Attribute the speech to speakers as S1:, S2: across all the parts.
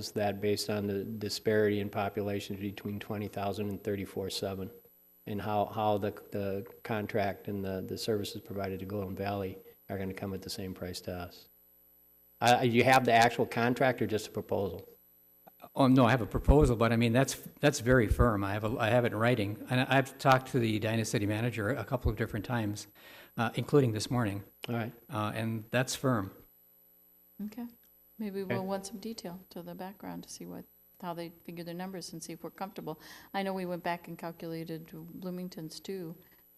S1: Is that based on the disparity in populations between 20,000 and 34,700? And how, how the, the contract and the, the services provided to Golden Valley are going to come at the same price to us? Uh, you have the actual contract or just a proposal?
S2: Oh, no, I have a proposal, but I mean, that's, that's very firm. I have, a- I have it in writing. And I've talked to the Edina City Manager a couple of different times, uh, including this morning,
S1: All right,
S2: uh, and that's firm.
S3: Okay, maybe we'll want some detail to the background to see what, how they figure their numbers and see if we're comfortable. I know we went back and calculated Bloomington's too,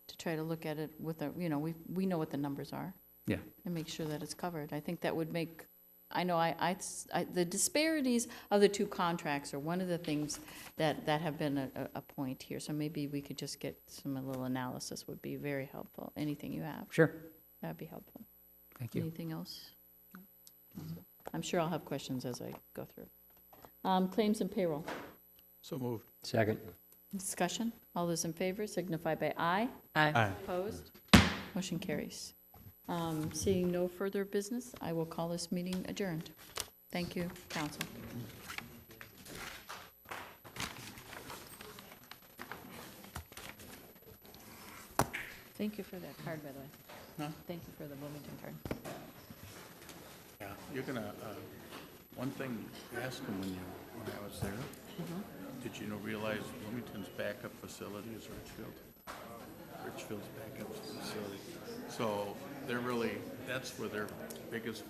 S3: to try to look at it with a, you know, we, we know what the numbers are.
S2: Yeah.
S3: And make sure that it's covered. I think that would make, I know I, I, I- the disparities of the two contracts are one of the things that, that have been a, a- a point here. So maybe we could just get some, a little analysis would be very helpful. Anything you have,
S2: Sure,
S3: that'd be helpful.
S2: thank you.
S3: Anything else? I'm sure I'll have questions as I go through. Um, Claims and payroll,
S4: So moved.
S1: second.
S3: discussion. All those in favor signify by aye.
S4: Aye.
S3: Opposed? Motion carries. Um, Seeing no further business, I will call this meeting adjourned. Thank you, council. Thank you for that card, by the way. Thank you for the Bloomington card.
S4: Yeah, you're gonna, uh, one thing you asked him when you, when I was there, did you know, realize Bloomington's backup facility is Richfield? Richfield's backup facility. So they're really, that's where their biggest